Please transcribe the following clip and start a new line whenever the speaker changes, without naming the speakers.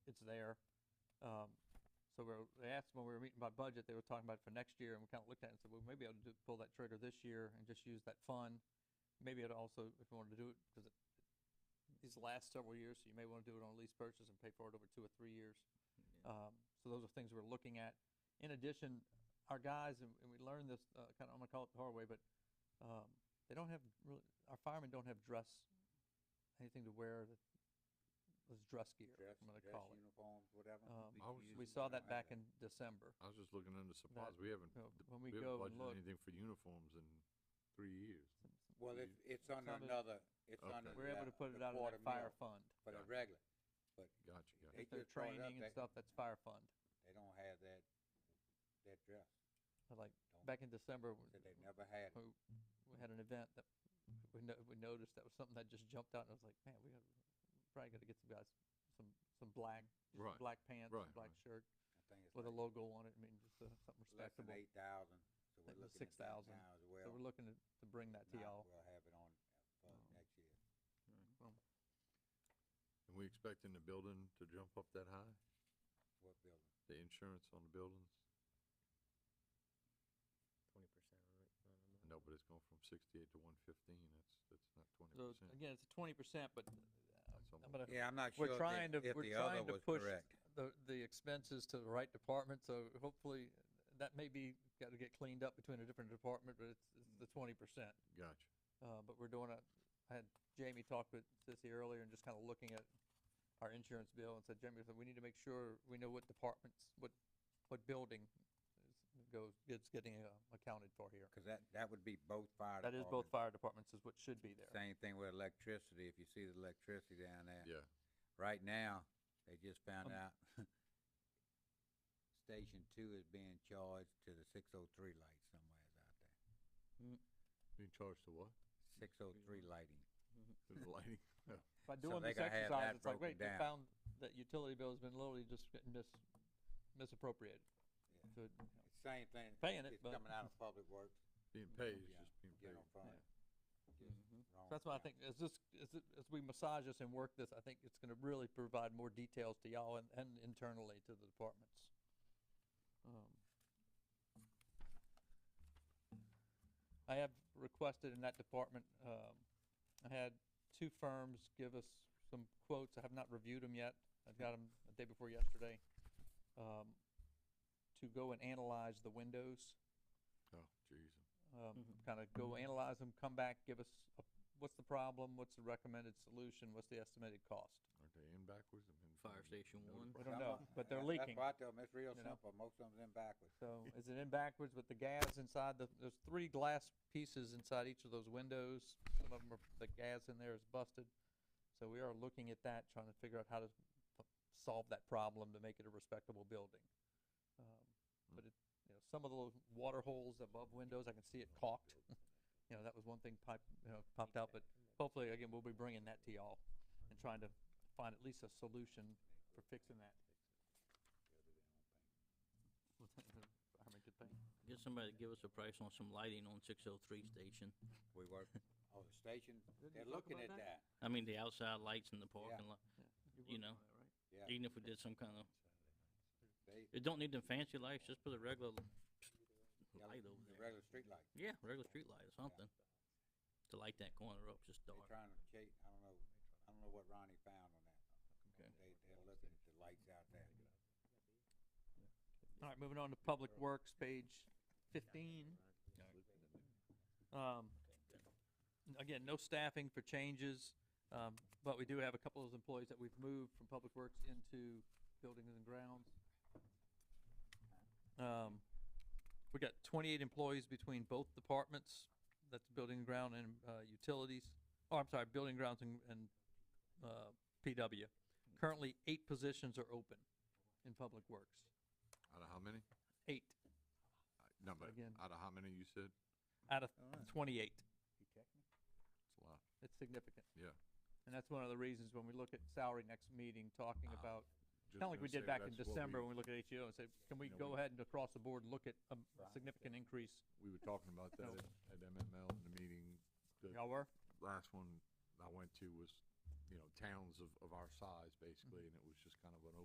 there. Um, so we were, they asked when we were meeting about budget, they were talking about it for next year, and we kind of looked at it and said, well, maybe I'll do, pull that trigger this year and just use that fund. Maybe it also, if you wanted to do it, because it, these last several years, so you may want to do it on a lease purchase and pay for it over two or three years. Um, so those are things we're looking at. In addition, our guys, and, and we learned this, uh, kind of, I'm gonna call it the hard way, but, um, they don't have really, our firemen don't have dress, anything to wear that was dress gear,
Dress,
I'm gonna
dress
call it.
uniforms, whatever.
Um,
I was-
We
usually
saw
don't
that
have
back in December.
I was just looking into supplies. We haven't,
Uh,
d-
When
we
we
haven't
go and
budgeted
look,
anything for uniforms in three years.
Well, it's, it's under
under-
another, it's
Okay.
under.
we're able
the-
to put it
the
out of
quarter
that fire
mil
fund.
For the
Gotcha.
regular,
Gotcha, gotcha.
They
If they're
just brought it up,
training and
they-
stuff, that's fire fund.
they don't have that, that dress.
But Like,
Don't-
back in December, we-
Said they never had it.
we we had an event that we no, we noticed that was something that just jumped out and I was like, man, we gotta, probably gotta get some guys, some, some black, just some
Right,
black pants,
right,
black
right.
shirt
I think it's
with a
like
logo on it, I mean, just uh, something
less than
respectable.
eight thousand, so
Think
we're
it was
looking at that
6,000,
now as
So
well.
we're looking to, to bring that
If
to
not,
y'all.
We'll have it on, for
Um,
next year.
And we expecting the building to jump up that high?
What building?
The insurance on the buildings?
twenty percent on it. no, no, no.
No, but it's going from sixty-eight to one fifteen. That's, that's not twenty
So
percent.
again, it's twenty percent, but uh,
That's
I'm gonna,
Yeah, I'm not sure
we're
if
trying
the,
to,
if
we're
the other
trying to
was
push
correct.
the, the expenses to the right department, so hopefully, that may be, gotta get cleaned up between a different department, but it's, it's the twenty percent.
Gotcha.
Uh, but we're doing a, I had Jamie talk with Sissy earlier and just kind of looking at our insurance bill and said, Jamie, we said, we need to make sure we know what departments, what, what building is- goes, gets getting uh, accounted for here.
Cause that, that would be both fire
That is
departments.
both fire departments is what should be there.
Same thing with electricity, if you see the electricity down there.
Yeah,
Right now, they just found
Um,
out Station Two is being charged to the six oh three light somewhere out there.
being charged to what?
Six oh three lighting.
To the lighting?
By
So
doing
they
this
gotta have
exercise,
that
it's like,
broken
wait, they
down.
found that utility bill has been literally just getting mis, misappropriated. So,
Yeah. It's Same thing.
Paying it,
It's
but-
coming out of public works,
Being paid, it's
Yeah.
just being paid.
general fund. Just wrong
so that's why I
account.
think, as this, as, it- as we massage this and work this, I think it's gonna really provide more details to y'all and, and internally to the departments. Um, I have requested in that department, um, I had two firms give us some quotes. I have not reviewed them yet. I've got them the day before yesterday. Um, to go and analyze the windows,
Oh, jeez.
um,
Mhm.
kind of go analyze them, come back, give us, a- what's the problem? What's the recommended solution? What's the estimated cost?
Aren't they in backwards? I mean,
Fire
I mean,
station
no
one.
We
difference.
don't
Some
know,
are-
but they're
that-
leaking.
That's why I tell 'em it's real
you know.
simple, most of them's in backwards.
So is it in backwards with the gas inside the, there's three glass pieces inside each of those windows. Some of them are, the gas in there is busted. So we are looking at that, trying to figure out how to f- solve that problem to make it a respectable building. Um, But it, you know, some of those water holes above windows, I can see it caulked. You know, that was one thing pipe, you know, popped out, but hopefully, again, we'll be bringing that to y'all and trying to find at least a solution for fixing that. Fireman could think.
Get somebody to give us a price on some lighting on six oh three station.
We work, oh, the station,
Didn't
they're
you talk
looking
about
at that,
I mean, the outside lights in the parking lot,
worked
you know,
yeah.
even if we did some kind of,
They,
it don't need them fancy lights, just put a regular
yeah,
light over
the
there.
regular street light.
Yeah, regular street light or something. To light that corner up, just
They're
dark.
trying to chase, I don't know, I don't know what Ronnie found on that.
Okay.
They, they're looking at the lights out there.
All right, moving on to Public Works, page fifteen. Um, n- again, no staffing for changes, um, but we do have a couple of employees that we've moved from Public Works into Buildings and Grounds. Um, we got twenty-eight employees between both departments, that's Building and Ground and, uh, Utilities, oh, I'm sorry, Building Grounds and, and, uh, PW. Currently, eight positions are open in Public Works,
Out of how many?
eight
I- No, but
Again.
out of how many you said?
out of
Alright.
twenty-eight.
It's a lot.
It's significant.
Yeah.
And that's one of the reasons when we look at salary next meeting, talking
Ah,
about,
Just
kind of like
gonna
we
say
did back in
that's what we-
December when we looked at HEO and said, can we
know,
go
we-
ahead and across the board look at a significant increase?
We were talking about that at- at MML in the meeting. The
Y'all were?
last one I went to was, you know, towns of, of our size basically, and it was just kind of an